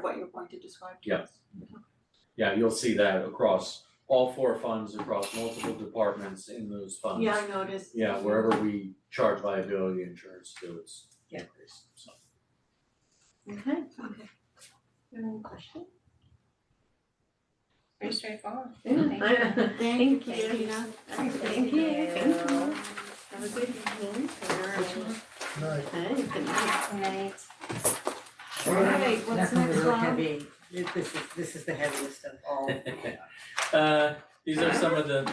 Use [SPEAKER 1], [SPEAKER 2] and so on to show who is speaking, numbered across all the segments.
[SPEAKER 1] point to describe to
[SPEAKER 2] Yeah.
[SPEAKER 1] us.
[SPEAKER 2] Yeah, you'll see that across all four funds, across multiple departments in those funds.
[SPEAKER 1] Yeah, I noticed.
[SPEAKER 2] Yeah, wherever we charge liability insurance to, it's
[SPEAKER 3] Yeah.
[SPEAKER 2] increased, so.
[SPEAKER 3] Okay,
[SPEAKER 1] Okay.
[SPEAKER 3] any questions?
[SPEAKER 4] Pretty straightforward.
[SPEAKER 1] Thank you,
[SPEAKER 3] Thank you.
[SPEAKER 1] Tina.
[SPEAKER 3] Thank you. Thank you. Have a good evening.
[SPEAKER 5] Right.
[SPEAKER 3] Okay, good night.
[SPEAKER 4] Right.
[SPEAKER 1] Alright, what's
[SPEAKER 6] That's gonna be
[SPEAKER 1] next,
[SPEAKER 6] really
[SPEAKER 1] Rob?
[SPEAKER 6] heavy. This is, this is the heaviest of all.
[SPEAKER 7] Uh, these are some of the,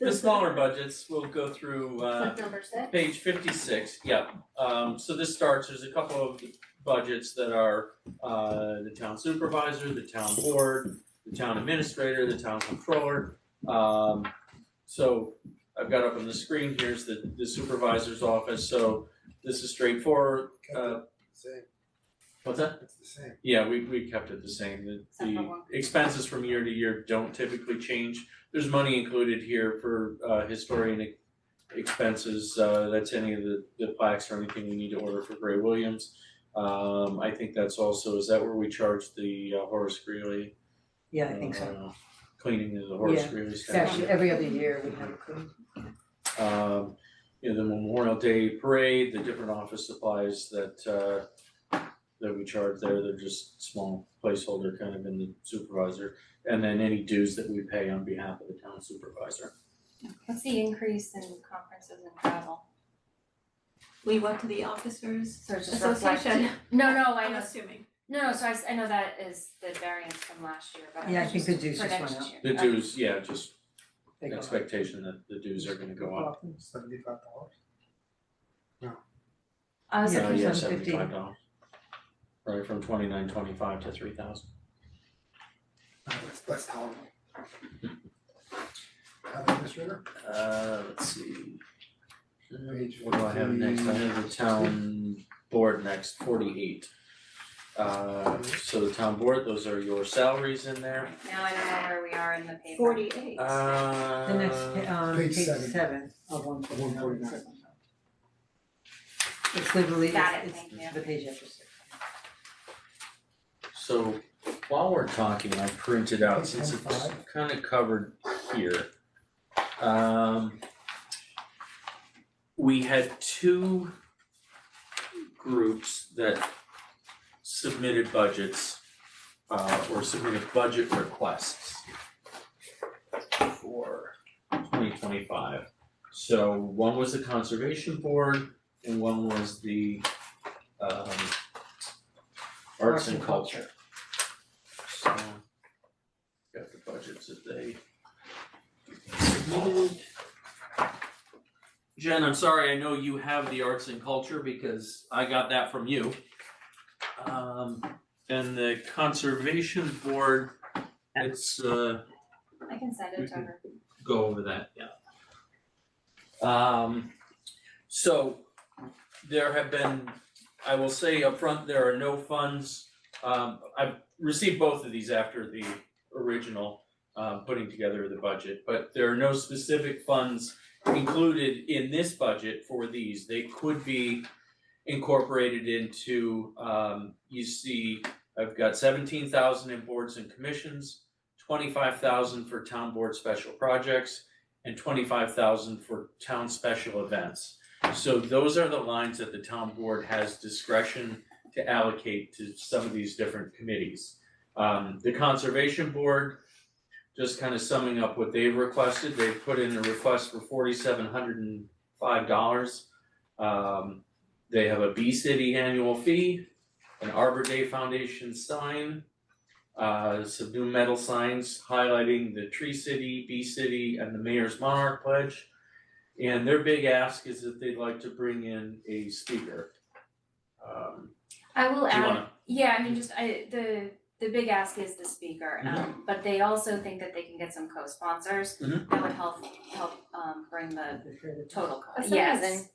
[SPEAKER 7] the smaller budgets, we'll go through, uh,
[SPEAKER 4] Number six.
[SPEAKER 7] Page fifty-six, yeah, um, so this starts, there's a couple of budgets that are, uh, the town supervisor, the town board, the town administrator, the town controller. Um, so I've got up on the screen, here's the, the supervisor's office, so this is straightforward, uh,
[SPEAKER 5] Same,
[SPEAKER 7] what's that?
[SPEAKER 5] it's the same.
[SPEAKER 7] Yeah, we we kept it the same, the
[SPEAKER 4] Except for
[SPEAKER 7] the
[SPEAKER 4] one.
[SPEAKER 7] expenses from year to year don't typically change. There's money included here for uh historian e- expenses, uh that's any of the the plaques or anything we need to order for Gray Williams. Um I think that's also, is that where we charge the uh, Horace Greeley?
[SPEAKER 6] Yeah, I think so.
[SPEAKER 7] uh, Cleaning of the Horace
[SPEAKER 6] Yeah,
[SPEAKER 7] Greeley
[SPEAKER 6] It's
[SPEAKER 7] statue.
[SPEAKER 6] actually every other year we have a clean.
[SPEAKER 7] Um you know, the Memorial Day parade, the different office supplies that uh that we charge there, they're just small placeholder kind of in the supervisor. And then any dues that we pay on behalf of the town supervisor.
[SPEAKER 4] What's the increase in conferences and travel?
[SPEAKER 1] We went to the officers
[SPEAKER 4] So it's just
[SPEAKER 1] association,
[SPEAKER 4] reflected. No, no, I
[SPEAKER 1] I'm
[SPEAKER 4] know,
[SPEAKER 1] assuming.
[SPEAKER 4] no, no, so I, s- I know that is the variance from last year, but
[SPEAKER 6] Yeah, I
[SPEAKER 4] it's
[SPEAKER 6] think
[SPEAKER 4] just
[SPEAKER 6] the dues
[SPEAKER 4] for
[SPEAKER 6] just
[SPEAKER 4] next
[SPEAKER 6] went up.
[SPEAKER 4] year.
[SPEAKER 7] The
[SPEAKER 4] Okay.
[SPEAKER 7] dues, yeah, just
[SPEAKER 6] They go up.
[SPEAKER 7] expectation that the dues are gonna go up.
[SPEAKER 5] Seventy-five dollars.
[SPEAKER 4] I was
[SPEAKER 6] Yeah.
[SPEAKER 4] like,
[SPEAKER 7] Uh, yeah,
[SPEAKER 6] it's on
[SPEAKER 7] seventy
[SPEAKER 6] 50.
[SPEAKER 7] five dollars. Right, from twenty nine twenty five to three thousand.
[SPEAKER 5] That's, that's tolerable. Town administrator?
[SPEAKER 7] Uh, let's see.
[SPEAKER 5] Page
[SPEAKER 7] What do I have next? I have the town board next, forty-eight. Uh, so the town board, those are your salaries in there.
[SPEAKER 4] now I don't know where we are in the paper.
[SPEAKER 1] Forty-eight.
[SPEAKER 7] Uh.
[SPEAKER 6] The next, pa- um,
[SPEAKER 5] Page
[SPEAKER 6] page
[SPEAKER 5] seven.
[SPEAKER 6] seven of one forty nine.
[SPEAKER 5] 149.
[SPEAKER 6] It's literally,
[SPEAKER 4] Got
[SPEAKER 6] it's,
[SPEAKER 4] it, thank
[SPEAKER 6] it's
[SPEAKER 4] you.
[SPEAKER 6] the page after six.
[SPEAKER 7] So while we're talking, I printed out, since it's kinda covered here. Um. We had two groups that submitted budgets, uh, or submitted budget requests. For twenty twenty-five, so one was the conservation board and one was the, um. Arts and culture. So, got the budgets that they submitted. Jen, I'm sorry, I know you have the arts and culture because I got that from you. Um, and the conservation board, it's, uh,
[SPEAKER 4] I can send it to her.
[SPEAKER 7] go over that, yeah. Um, so there have been, I will say upfront, there are no funds. Um, I've received both of these after the original, uh, putting together the budget, but there are no specific funds included in this budget for these. They could be incorporated into, um, you see, I've got seventeen thousand in boards and commissions, twenty-five thousand for town board special projects and twenty-five thousand for town special events. So those are the lines that the town board has discretion to allocate to some of these different committees. Um, the conservation board, just kind of summing up what they've requested, they've put in a request for forty-seven hundred and five dollars. Um, they have a Bee City annual fee, an Arbor Day Foundation sign, uh, some new metal signs highlighting the Tree City, Bee City, and the Mayor's Monarch Pledge. And their big ask is that they'd like to bring in a speaker. Um,
[SPEAKER 4] I
[SPEAKER 7] do
[SPEAKER 4] will
[SPEAKER 7] you
[SPEAKER 4] add,
[SPEAKER 7] wanna,
[SPEAKER 4] yeah, I mean, just I, the, the big ask is the speaker,
[SPEAKER 7] Mm-hmm.
[SPEAKER 4] um, but they also think that they can get some co-sponsors
[SPEAKER 7] Mhm.
[SPEAKER 4] that would help, help, um, bring the total cost,
[SPEAKER 1] That's
[SPEAKER 4] yes.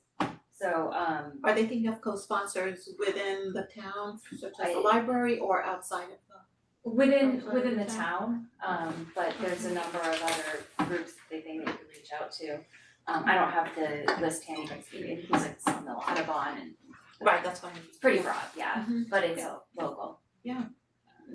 [SPEAKER 4] So, um,
[SPEAKER 1] Are they thinking of co-sponsors within the town, such as
[SPEAKER 4] I-
[SPEAKER 1] the library or outside of the?
[SPEAKER 4] within,
[SPEAKER 1] Outside
[SPEAKER 4] within
[SPEAKER 1] of
[SPEAKER 4] the
[SPEAKER 1] the
[SPEAKER 4] town, um, but there's a number of other groups that they think they could reach out to. Um, I don't have the list handy, but it's, because it's on the Audubon and
[SPEAKER 1] Right, that's what I mean.
[SPEAKER 4] it's pretty broad, yeah,
[SPEAKER 1] Mhm.
[SPEAKER 4] but it's
[SPEAKER 1] Yeah.
[SPEAKER 4] local. Um,
[SPEAKER 1] Yeah.